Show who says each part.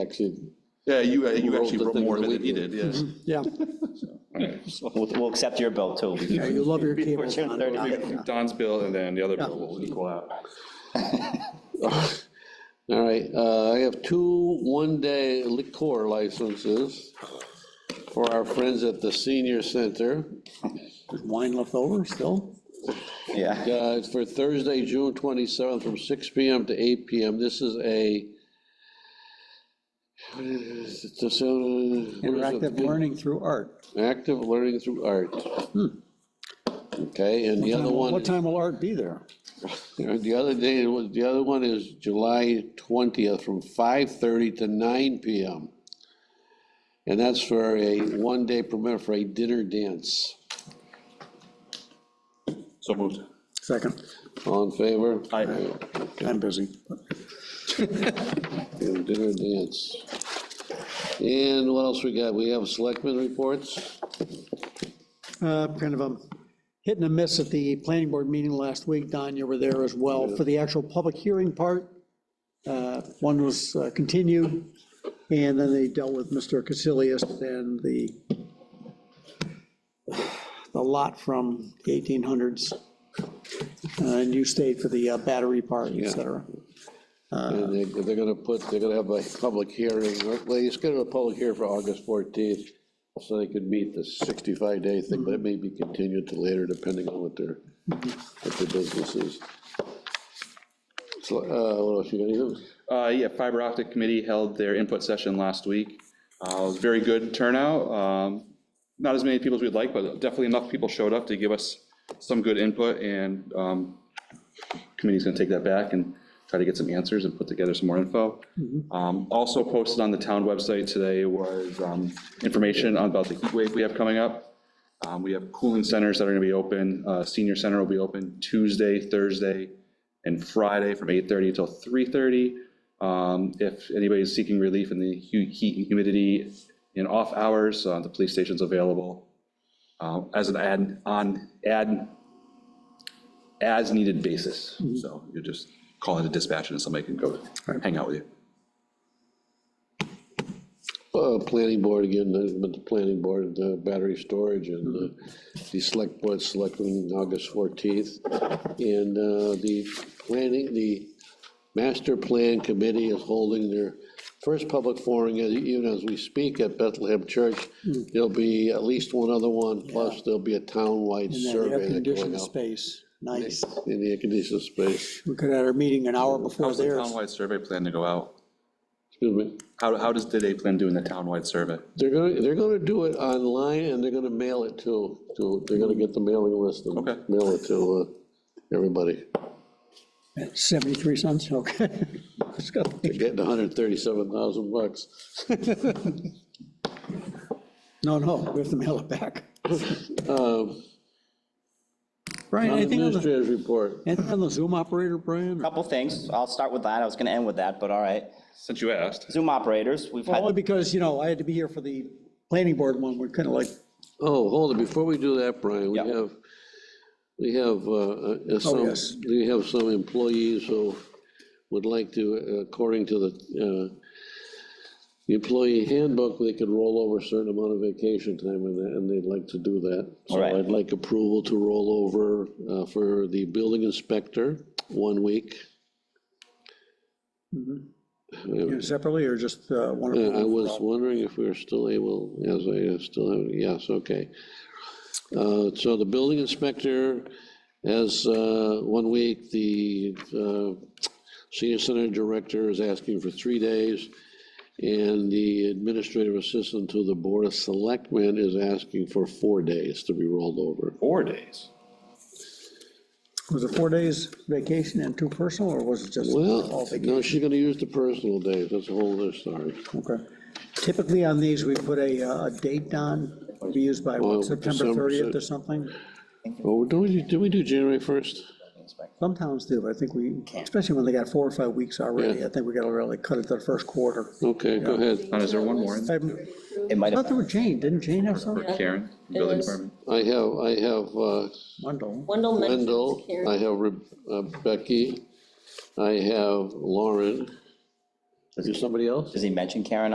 Speaker 1: Actually,
Speaker 2: Yeah, you, you
Speaker 1: wrote
Speaker 2: actually
Speaker 1: the
Speaker 2: wrote
Speaker 1: thing
Speaker 2: more of
Speaker 1: that
Speaker 2: it than
Speaker 1: we
Speaker 2: he
Speaker 1: did.
Speaker 2: did, yes.
Speaker 3: Yeah,
Speaker 4: We'll, we'll accept your bill too.
Speaker 3: yeah, you love your
Speaker 4: Before
Speaker 3: cables.
Speaker 4: June
Speaker 3: on.
Speaker 4: 30th.
Speaker 3: Mm-hmm.
Speaker 5: Don's bill and then the other bill will equal out.
Speaker 1: all right, uh, I have two one-day liquor licenses for our friends at the senior center.
Speaker 3: Wine left over still?
Speaker 4: Yeah.
Speaker 1: Uh, It's for Thursday, June 27th, from 6 PM to 8 PM. This is a. It's a- what is it?
Speaker 3: Interactive learning through art.
Speaker 1: Active learning through art. Okay, and the other one.
Speaker 3: What
Speaker 1: is-
Speaker 3: time will art be there?
Speaker 1: The other day, was- the other one is July 20th from 5:30 to 9 PM. And that's for a one-day permit for a dinner dance.
Speaker 2: So moved.
Speaker 3: Second,
Speaker 1: All in favor?
Speaker 4: Aye.
Speaker 3: I'm busy.
Speaker 1: Dinner dance. And what else we got? We have selectmen reports?
Speaker 3: Uh, Kind of a hit and a miss at the planning board meeting last week. Don, you were there as well for the actual public hearing part. Uh, One was uh, continued, and then they dealt with Mr. Casilius and the, the lot from the 1800s. Uh, And you stayed for the uh, battery part, et cetera.
Speaker 1: And they- They're gonna put, they're gonna have a public hearing, or- well, they scheduled a public hearing for August 14th, so they could meet the 65-day thing, but it may be continued to later, depending on what their, what their business is. So, uh, what else you got, anything?
Speaker 5: Uh, yeah, fiber optic committee held their input session last week. Uh, it was very good turnout. Um, not as many people as we'd like, but definitely enough people showed up to give us some good input and, um, committee's gonna take that back and try to get some answers and put together some more info. Um, also posted on the town website today was, um, information on about the heat wave we have coming up. Um, we have cooling centers that are gonna be open. Uh, senior center will be open Tuesday, Thursday, and Friday from 8:30 till 3:30. Um, If anybody's seeking relief in the hu- heat and humidity in off hours, uh, the police station's available uh, as an ad, on, ad, as-needed basis.
Speaker 6: Mm-hmm.
Speaker 5: So you just call in a dispatch and somebody can go hang out with you.
Speaker 1: Uh, Planning board again, uh, but the planning board, the battery storage and uh, the select board selecting August 14th. And uh, the planning, the master plan committee is holding their first public forum, and even as we speak at Bethlehem Church. There'll be at least one other one, plus there'll be a town-wide
Speaker 3: In that
Speaker 1: survey that going
Speaker 3: air-conditioned
Speaker 1: out
Speaker 3: space, nice.
Speaker 1: in the air-conditioned space.
Speaker 3: We could have had our meeting an hour before
Speaker 5: How's the
Speaker 3: theirs.
Speaker 5: townwide survey plan to go out?
Speaker 1: Excuse me.
Speaker 5: How, how does, did they plan doing the townwide survey?
Speaker 1: They're gonna, they're gonna do it online, and they're gonna mail it to, to, they're gonna get the mailing list and
Speaker 5: Okay.
Speaker 1: mail it to uh, everybody.
Speaker 3: 73 cents, okay. Just got-
Speaker 1: They're getting hundred and thirty-seven thousand bucks.
Speaker 3: No, no, we have to mail it back.
Speaker 1: Um,
Speaker 3: Brian, anything on the,
Speaker 1: Administrator's report,
Speaker 3: anything on the Zoom operator, Brian?
Speaker 4: Couple things. I'll start with that. I was gonna end with that, but all right.
Speaker 5: Since you asked.
Speaker 4: Zoom operators, we've
Speaker 3: Only
Speaker 4: had,
Speaker 3: because, you know, I had to be here for the planning board one, we're kind of like,
Speaker 1: oh, hold it, before we do that, Brian, we
Speaker 4: Yeah.
Speaker 1: have, we have, uh, uh, some,
Speaker 3: yes.
Speaker 1: we have some employees who would like to, according to the, uh, the employee handbook, they could roll over a certain amount of vacation time, and they- and they'd like to do that. So
Speaker 4: Alright.
Speaker 1: I'd like approval to roll over uh, for the building inspector, one week.
Speaker 3: you know, separately or just uh, one?
Speaker 1: Uh, I
Speaker 3: of
Speaker 1: was wondering if we were still able, as I still have, yes, okay. Uh, So the building inspector has uh, one week, the uh, senior center director is asking for three days, and the administrative assistant to the board of selectmen is asking for four days to be rolled over.
Speaker 5: Four days.
Speaker 3: Was it four days vacation and two personal, or was it just all
Speaker 1: Well,
Speaker 3: vacation?
Speaker 1: no, she's gonna use the personal days, that's a whole other story.
Speaker 3: Okay. Typically on these, we put a, uh, a date on, to be used by
Speaker 1: Well,
Speaker 3: what, September
Speaker 1: December,
Speaker 3: 30th or something?
Speaker 1: Oh, do we, do we do January 1st?
Speaker 3: Some towns do, but I think we, especially when they got four or five weeks already,
Speaker 1: Yeah.
Speaker 3: I think we got to really cut it to the first quarter.
Speaker 1: Okay, go ahead.
Speaker 5: And is there one more in
Speaker 3: I
Speaker 5: there
Speaker 4: it might
Speaker 3: thought
Speaker 4: have,
Speaker 3: there was Jane, didn't Jane have
Speaker 5: for
Speaker 3: some?
Speaker 5: Karen,
Speaker 6: It
Speaker 5: building
Speaker 6: is.
Speaker 5: department?
Speaker 1: I have, I have uh,
Speaker 3: Wendell.
Speaker 6: Wendell mentioned
Speaker 1: Wendell,
Speaker 6: Karen.
Speaker 1: I have Re- uh, Becky, I have Lauren, Is somebody else?
Speaker 4: Does he mention Karen